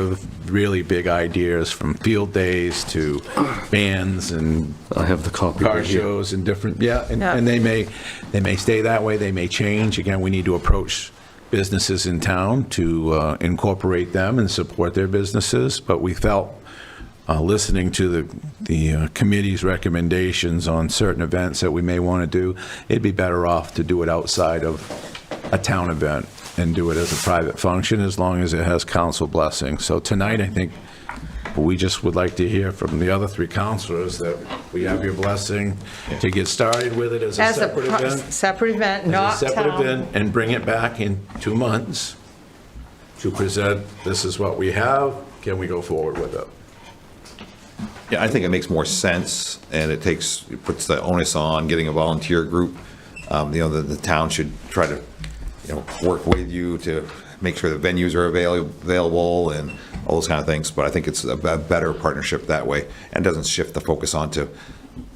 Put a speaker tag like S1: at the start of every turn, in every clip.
S1: of really big ideas from field days to bands and
S2: I have the copy
S1: car
S2: right here.
S1: shows and different, yeah, and,
S3: Yeah.
S1: and they may, they may stay that way, they may change. Again, we need to approach businesses in town to uh, incorporate them and support their businesses, but we felt, uh, listening to the, the uh, committee's recommendations on certain events that we may want to do, it'd be better off to do it outside of a town event and do it as a private function, as long as it has council blessing. So tonight, I think, we just would like to hear from the other three counselors that we have your blessing to get started with it as a
S3: As a
S1: separate
S3: pro-
S1: event.
S3: separate event,
S1: as a
S3: not
S1: separate
S3: town.
S1: event, And bring it back in two months to present, this is what we have, can we go forward with it?
S4: Yeah, I think it makes more sense, and it takes, it puts the onus on getting a volunteer group. Um, You know, the, the town should try to, you know, work with you to make sure the venues are avail- available and all those kind of things, but I think it's a be- better partnership that way, and doesn't shift the focus onto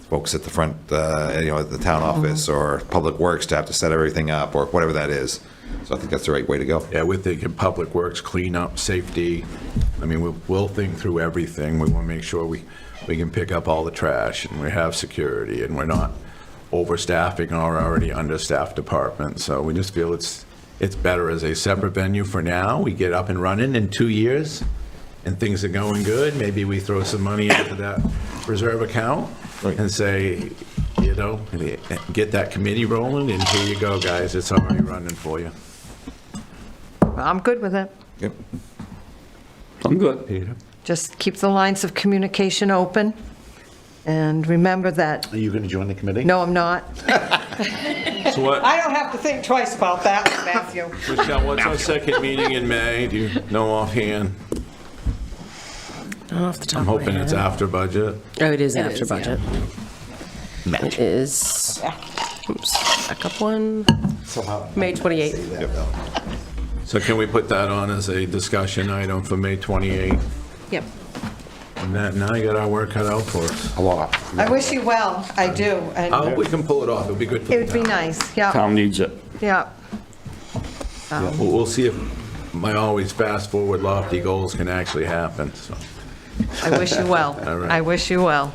S4: folks at the front, uh, you know, at the town office, or Public Works to have to set everything up, or whatever that is. So I think that's the right way to go.
S1: Yeah, we're thinking public works, cleanup, safety. I mean, we'll, we'll think through everything. We want to make sure we, we can pick up all the trash and we have security and we're not overstaffing our already understaffed department. So we just feel it's, it's better as a separate venue for now. We get up and running in two years and things are going good. Maybe we throw some money into that reserve account and say, you know, get that committee rolling and here you go, guys. It's already running for you.
S3: I'm good with it.
S4: Yep.
S2: I'm good.
S1: Peter?
S3: Just keep the lines of communication open, and remember that,
S5: Are you going to join the committee?
S3: no, I'm not.
S1: So what,
S3: I don't have to think twice about that, Matthew.
S1: Michelle, what's our second meeting in May? Do you know offhand?
S6: Off the top
S1: I'm
S6: of my
S1: hoping it's
S6: head.
S1: after budget.
S6: Oh, it is after budget. It is, oops, back up one, May 28th.
S1: So can we put that on as a discussion item for May 28th?
S3: Yep.
S1: And that, now you got our work cut out for us.
S5: A lot.
S3: I wish you well, I do,
S1: I hope
S3: and
S1: we can pull it off. It'll be good for
S3: it
S1: the
S3: would be
S1: town.
S3: nice, yeah,
S2: Town needs it.
S3: yeah.
S1: We'll we'll see if my always fast-forward lofty goals can actually happen, so
S3: I wish you well.
S1: All right.
S3: I wish you well.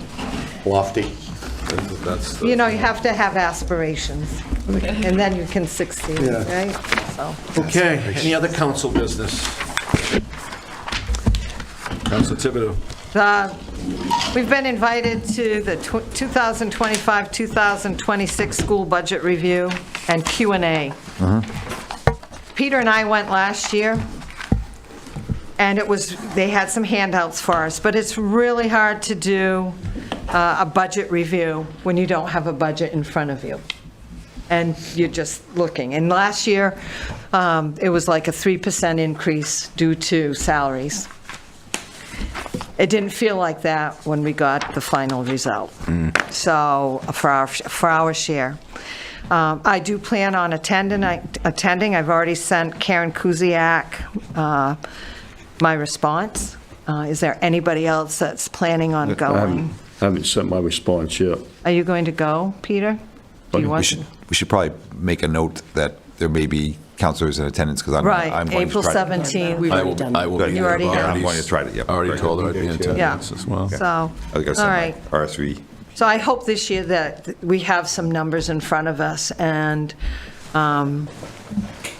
S5: Lofty.
S1: that's- that's. the-
S3: You know, you have to have aspirations, and then you can succeed, right? So,
S1: Okay, any other council business? Council Thibodeau?
S3: the- We've been invited to the 2025-2026 school budget review and Q and A. Peter and I went last year, and it was, they had some handouts for us, but it's really hard to do uh, a budget review when you don't have a budget in front of you. And you're just looking. And last year, um, it was like a 3% increase due to salaries. It didn't feel like that when we got the final result. So, for our, for our share. Um, I do plan on attending, I- attending, I've already sent Karen Kuziak uh, my response. Uh, Is there anybody else that's planning
S4: Uh, um,
S3: on
S2: I haven't,
S3: going?
S2: haven't sent my response yet.
S3: Are you going to go, Peter? Do you
S4: We
S3: want
S4: should,
S3: to?
S4: we should probably make a note that there may be counselors in attendance, because I'm, I'm
S3: Right,
S4: going to
S3: April
S4: try to.
S3: 17th.
S6: We've
S1: I
S6: already
S1: will,
S6: done
S1: I
S6: that.
S1: will. be
S4: You
S1: there.
S3: already
S1: I've
S3: have.
S4: I'm going to try to, yeah.
S1: Already
S4: Right.
S1: told her I'd be in
S3: Yeah.
S1: attendance as well.
S3: So,
S4: I think I
S3: all
S4: sent
S3: right.
S4: my RSV.
S3: So I hope this year that we have some numbers in front of us, and um,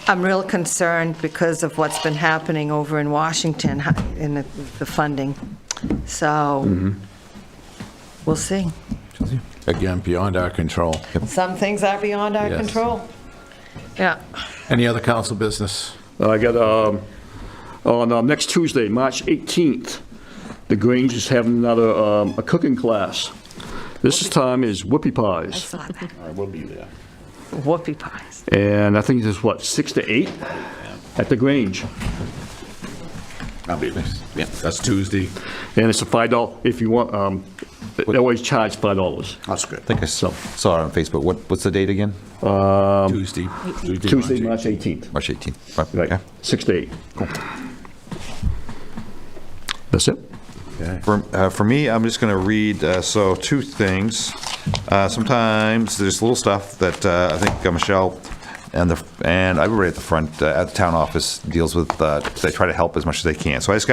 S3: I'm real concerned because of what's been happening over in Washington in the the funding. So, we'll see.
S1: Again, beyond our control.
S3: Some things are beyond our
S1: Yes.
S3: control. Yeah.
S1: Any other council business?
S2: I got, um, on um, next Tuesday, March 18th, the Grange is having another, um, a cooking class. This time is whoopie pies.
S5: I will be there.
S3: Whoopie pies.
S2: And I think it's what, 6 to 8 at the Grange.
S5: I'll be there. Yeah.
S1: That's Tuesday.
S2: And it's a $5, if you want, um, they always charge $5.
S5: That's good.
S4: I think I saw saw it on Facebook. What, what's the date again?
S1: Tuesday.
S2: Tuesday, March 18th.
S4: March 18th. Right,
S2: Right,
S4: okay.
S2: 6 to 8. That's it?
S4: For, uh, for me, I'm just going to read, uh, so two things. Uh, sometimes there's little stuff that, uh, I think uh, Michelle and the, and everybody at the front, uh, at the town office deals with, uh, they try to help as much as they can. So I just got